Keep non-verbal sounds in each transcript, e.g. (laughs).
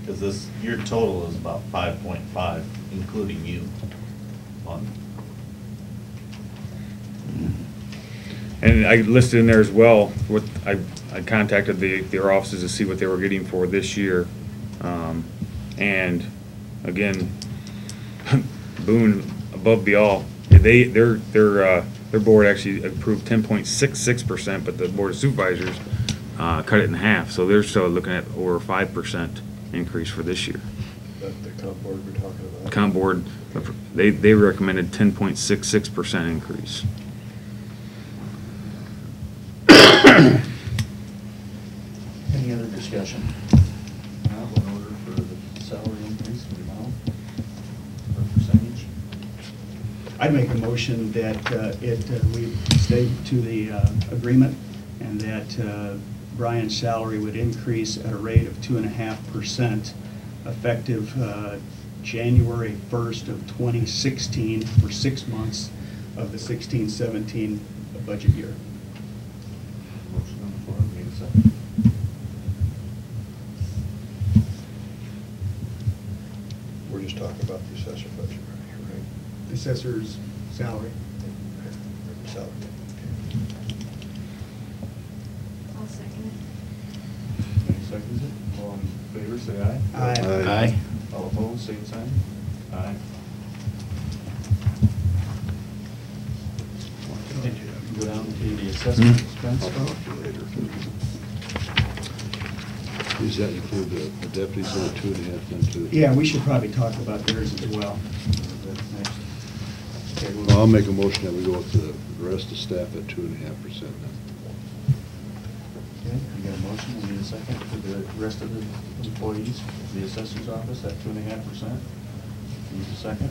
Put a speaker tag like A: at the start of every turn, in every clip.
A: Because this, your total is about five point five, including you on,
B: And I listed in there as well, what, I, I contacted the, their offices to see what they were getting for this year. Um, and again, (laughs) Boone above the all, they, their, their, uh, their board actually approved ten point six six percent, but the board of supervisors, uh, cut it in half, so they're still looking at over five percent increase for this year.
C: That the comp board we're talking
B: The
C: about.
B: comp board, they, they recommended ten point six six percent increase.
D: Any other discussion? Now, in order for the salary increase in amount or percentage,
E: I'd make a motion that uh, it, uh, we stay to the uh, agreement and that uh, Brian's salary would increase at a rate of two and a half percent effective uh, January first of twenty sixteen for six months of the sixteen seventeen budget year.
D: motion on the floor, need a second.
C: We're just talking about the assessor budget, right?
E: Assessor's salary.
C: Right. Salary.
F: I'll second it.
D: Any seconds it? All in favor, say aye.
E: Aye.
C: Aye.
D: All opposed, same sign? Aye. Go down to the assessment
B: Hmm.
D: expense vote.
G: Does that include the deputies on two and a half, then two?
E: Yeah, we should probably talk about theirs as well.
D: Okay, we'll-
G: Well, I'll make a motion that we go with the rest of staff at two and a half percent then.
D: Okay, we got a motion, we need a second for the rest of the employees, of the assessor's office at two and a half percent. Need a second?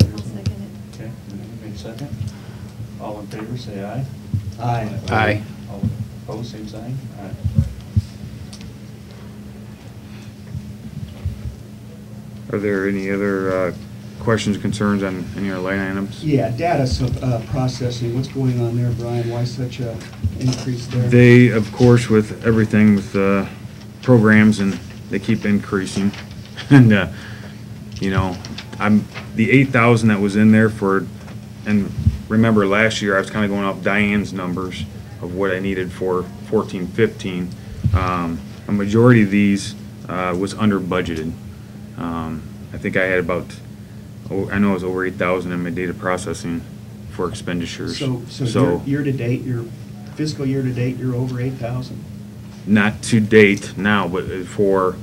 F: I'll second it.
D: Okay, we need a second. All in favor, say aye.
E: Aye.
H: Aye.
D: All opposed, same sign? Aye.
B: Are there any other uh, questions, concerns on any of our line items?
E: Yeah, data sup- uh, processing, what's going on there, Brian? Why such a increase there?
B: They, of course, with everything with uh, programs and they keep increasing. (laughs) And, uh, you know, I'm, the 8,000 that was in there for, and remember last year, I was kind of going off Diane's numbers of what I needed for 14, 15. Um, A majority of these uh, was under budgeted. Um, I think I had about, oh, I know it was over 8,000 in my data processing for expenditures.
E: So, so year- year-to-date, your fiscal year-to-date, you're over 8,000?
B: not to date now, but for,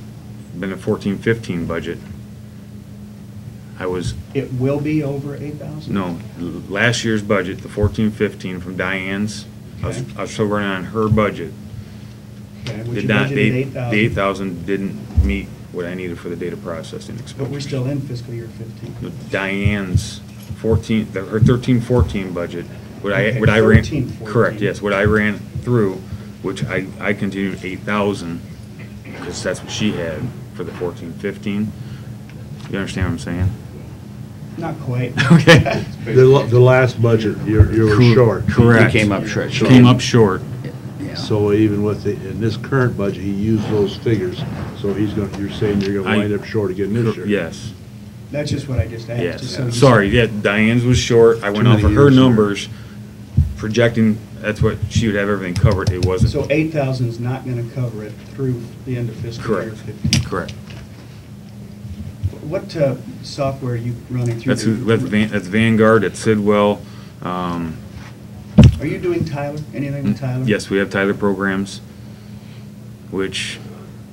B: been a fourteen, fifteen budget. I was,
E: It will be over 8,000?
B: no, l- last year's budget, the fourteen, fifteen from Diane's, I was,
E: Okay.
B: I was still running on her budget.
E: Okay, which
B: Did
E: you
B: not,
E: budgeted
B: they,
E: 8,000.
B: the eight thousand didn't meet what I needed for the data processing expenses.
E: But we're still in fiscal year 15.
B: Diane's fourteen, the- her thirteen, fourteen budget, what I,
E: Okay,
B: what I ran.
E: 13,
B: Correct,
E: 14.
B: yes, what I ran through, which I, I continued eight thousand, because that's what she had for the fourteen, fifteen. You understand what I'm saying?
E: Not quite.
B: (laughs)
E: (laughs)
B: Okay.
G: The, la- the last budget, you're, you were
B: Cor-
G: short.
B: Correct.
H: He came up short.
B: Came up short.
H: Yeah.
G: So even with the, in this current budget, he used those figures, so he's gonna, you're saying you're
B: I-
G: gonna wind up short again this year?
B: Yes,
E: That's just what I just asked. just so you-
B: yes. Sorry, yeah, Diane's was short, I went
G: Too
B: off
G: many
B: of her
G: years here.
B: numbers, projecting, that's what, she would have everything covered, it wasn't.
E: So 8,000 is not going to cover it through the end of fiscal year
B: Correct,
E: 15?
B: correct.
E: What uh, software are you running through?
B: That's,
E: the-
B: who- that's Van- that's Vanguard, that's Sidwell. um,
E: Are you doing Tyler, anything with Tyler?
B: Mm-hmm. Yes, we have Tyler programs, which,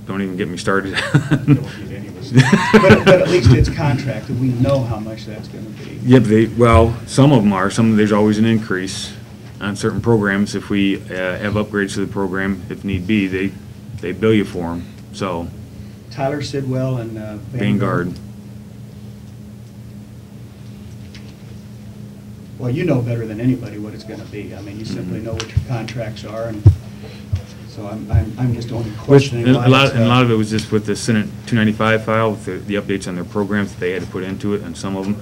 B: don't even get me started. (laughs)
D: Don't get any of us.
E: But but at least it's contracted, we know how much that's going to be.
B: Yep, they, well, some of them are, some, there's always an increase on certain programs. If we uh, have upgrades to the program, if need be, they, they bill you for them, so
E: Tyler Sidwell and uh,
B: Vanguard.
E: Well, you know better than anybody what it's going to be. I mean, you
B: Mm-hmm.
E: simply know what your contracts are, and so I'm, I'm I'm just only questioning
B: And
E: why
B: A lot,
E: it's,
B: and a
E: uh,
B: lot of it was just with the Senate 295 file, with the the updates on their programs that they had to put into it, and some of them,